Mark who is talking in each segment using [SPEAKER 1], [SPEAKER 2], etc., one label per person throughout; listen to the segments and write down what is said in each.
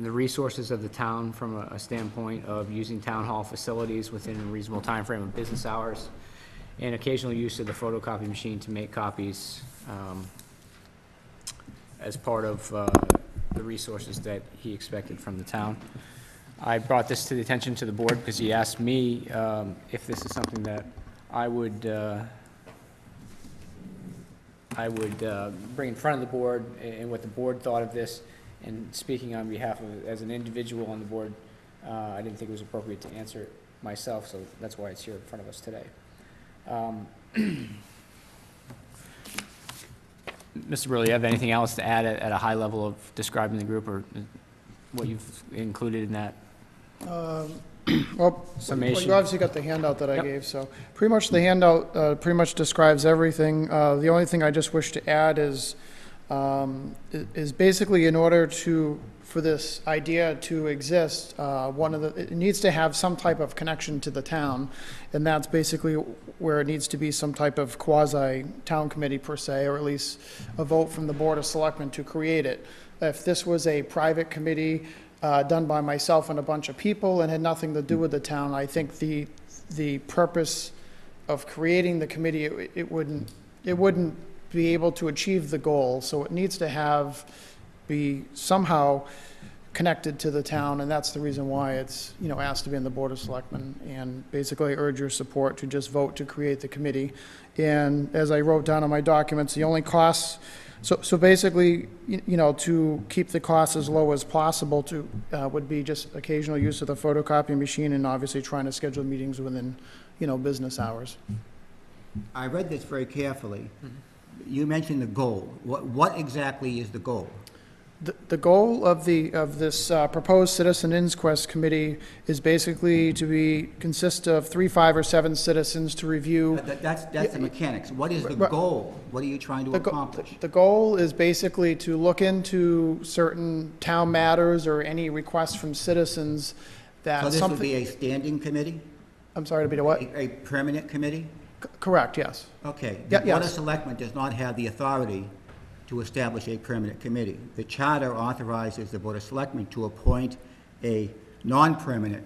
[SPEAKER 1] the resources of the town from a- a standpoint of using town hall facilities within a reasonable time frame of business hours, and occasional use of the photocopy machine to make copies um, as part of uh, the resources that he expected from the town. I brought this to the attention to the board because he asked me um, if this is something that I would, uh, I would uh, bring in front of the board a- and what the board thought of this. And speaking on behalf of, as an individual on the board, uh, I didn't think it was appropriate to answer it myself, so that's why it's here in front of us today. Um, Mr. Burley, you have anything else to add at at a high level of describing the group or uh, what you've included in that
[SPEAKER 2] Um, Well, well,
[SPEAKER 1] summation?
[SPEAKER 2] you obviously got the handout that I
[SPEAKER 1] Yep.
[SPEAKER 2] gave, so, pretty much the handout, uh, pretty much describes everything. Uh, the only thing I just wish to add is, um, i- is basically in order to, for this idea to exist, uh, one of the, it needs to have some type of connection to the town, and that's basically where it needs to be some type of quasi-town committee per se, or at least a vote from the Board of Selectmen to create it. If this was a private committee, uh, done by myself and a bunch of people and had nothing to do with the town. I think the, the purpose of creating the committee, it it wouldn't, it wouldn't be able to achieve the goal. So it needs to have, be somehow connected to the town, and that's the reason why it's, you know, asked to be in the Board of Selectmen. And basically urge your support to just vote to create the committee. And as I wrote down in my documents, the only costs so, so basically, you you know, to keep the costs as low as possible to, uh, would be just occasional use of the photocopy machine and obviously trying to schedule meetings within, you know, business hours.
[SPEAKER 3] I read this very carefully. You mentioned the goal. What, what exactly is the goal?
[SPEAKER 2] The, the goal of the, of this uh, proposed Citizen Inquest Committee is basically to be, consist of three, five, or seven citizens to review.
[SPEAKER 3] That- That's, that's the mechanics. What is the
[SPEAKER 2] Right.
[SPEAKER 3] goal? What are you trying to
[SPEAKER 2] The go-
[SPEAKER 3] accomplish?
[SPEAKER 2] The goal is basically to look into certain town matters or any requests from citizens
[SPEAKER 3] So
[SPEAKER 2] that
[SPEAKER 3] this would
[SPEAKER 2] something.
[SPEAKER 3] be a standing committee?
[SPEAKER 2] I'm sorry to be to what?
[SPEAKER 3] A, a permanent committee?
[SPEAKER 2] C- Correct, yes.
[SPEAKER 3] Okay.
[SPEAKER 2] Yeah,
[SPEAKER 3] The Board of
[SPEAKER 2] yes.
[SPEAKER 3] Selectmen does not have the authority to establish a permanent committee. The charter authorizes the Board of Selectmen to appoint a non-permanent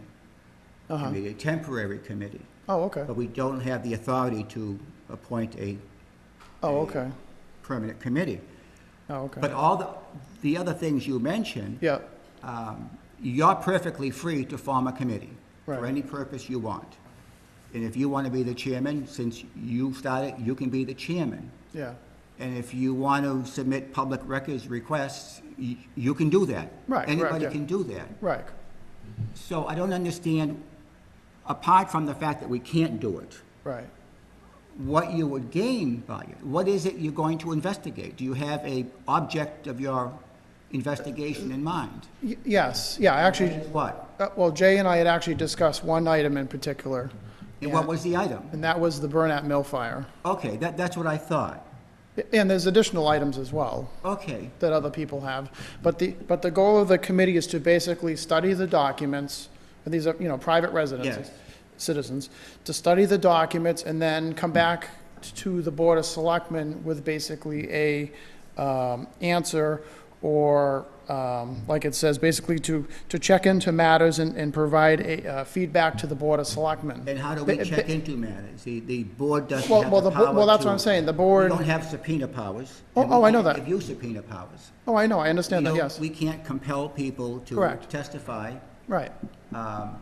[SPEAKER 2] Uh-huh.
[SPEAKER 3] committee, a temporary committee.
[SPEAKER 2] Oh, okay.
[SPEAKER 3] But we don't have the authority to appoint a
[SPEAKER 2] Oh, okay.
[SPEAKER 3] permanent committee.
[SPEAKER 2] Oh, okay.
[SPEAKER 3] But all the, the other things you mentioned,
[SPEAKER 2] Yeah,
[SPEAKER 3] um, you're perfectly free to form a committee for
[SPEAKER 2] Right.
[SPEAKER 3] any purpose you want. And if you want to be the chairman, since you started, you can be the chairman.
[SPEAKER 2] yeah.
[SPEAKER 3] And if you want to submit public records requests, you, you can do that.
[SPEAKER 2] Right, right,
[SPEAKER 3] Anybody
[SPEAKER 2] yeah.
[SPEAKER 3] can do that.
[SPEAKER 2] Right.
[SPEAKER 3] So I don't understand, apart from the fact that we can't do it,
[SPEAKER 2] Right.
[SPEAKER 3] what you would gain by it. What is it you're going to investigate? Do you have a object of your investigation in mind?
[SPEAKER 2] Y- yes. Yeah. Actually,
[SPEAKER 3] What?
[SPEAKER 2] uh, well, Jay and I had actually discussed one item in particular,
[SPEAKER 3] And what was the item?
[SPEAKER 2] and that was the Burnett Mill fire.
[SPEAKER 3] Okay, that, that's what I thought.
[SPEAKER 2] And there's additional items as well.
[SPEAKER 3] Okay,
[SPEAKER 2] that other people have. But the, but the goal of the committee is to basically study the documents, and these are, you know, private residents,
[SPEAKER 3] Yes.
[SPEAKER 2] citizens, to study the documents and then come back to the Board of Selectmen with basically a, um, answer or, um, like it says, basically to, to check into matters and, and provide a, uh, feedback to the Board of Selectmen.
[SPEAKER 3] and how do we
[SPEAKER 2] Ba-
[SPEAKER 3] check into matters? The, the board doesn't
[SPEAKER 2] Well-
[SPEAKER 3] have
[SPEAKER 2] well,
[SPEAKER 3] the
[SPEAKER 2] the bo-
[SPEAKER 3] power
[SPEAKER 2] well, that's
[SPEAKER 3] to-
[SPEAKER 2] what I'm saying. The
[SPEAKER 3] We
[SPEAKER 2] board-
[SPEAKER 3] don't have subpoena powers.
[SPEAKER 2] Oh,
[SPEAKER 3] and we
[SPEAKER 2] oh, I know
[SPEAKER 3] can't
[SPEAKER 2] that.
[SPEAKER 3] Give you subpoena powers.
[SPEAKER 2] Oh, I know, I
[SPEAKER 3] We
[SPEAKER 2] understand that,
[SPEAKER 3] don't-
[SPEAKER 2] yes.
[SPEAKER 3] We can't compel people to
[SPEAKER 2] Correct.
[SPEAKER 3] testify.
[SPEAKER 2] Right.
[SPEAKER 3] Um,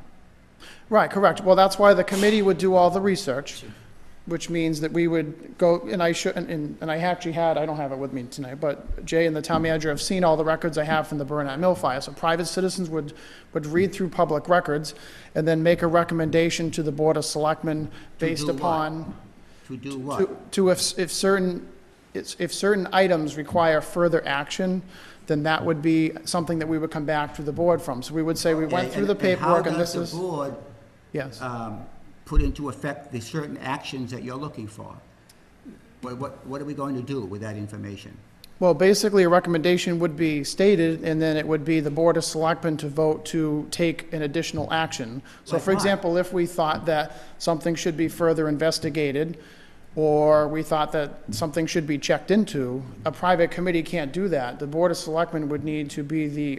[SPEAKER 2] Right, correct. Well, that's why the committee would do all the research, which means that we would go, and I should, and- and, and I actually had, I don't have it with me tonight, but Jay and the town manager have seen all the records I have from the Burnett Mill fire. So private citizens would, would read through public records and then make a recommendation to the Board of Selectmen based
[SPEAKER 3] do what?
[SPEAKER 2] upon,
[SPEAKER 3] To do
[SPEAKER 2] to,
[SPEAKER 3] what?
[SPEAKER 2] to if, if certain, it's- if certain items require further action, then that would be something that we would come back to the board from. So we would say we went
[SPEAKER 3] And-
[SPEAKER 2] through the
[SPEAKER 3] and- and
[SPEAKER 2] paperwork and this is,
[SPEAKER 3] how does the board
[SPEAKER 2] yes.
[SPEAKER 3] um, put into effect the certain actions that you're looking for. What, what, what are we going to do with that information?
[SPEAKER 2] Well, basically, a recommendation would be stated, and then it would be the Board of Selectmen to vote to take an additional action. So
[SPEAKER 3] Like
[SPEAKER 2] for
[SPEAKER 3] what?
[SPEAKER 2] example, if we thought that something should be further investigated, or we thought that something should be checked into, a private committee can't do that. The Board of Selectmen would need to be the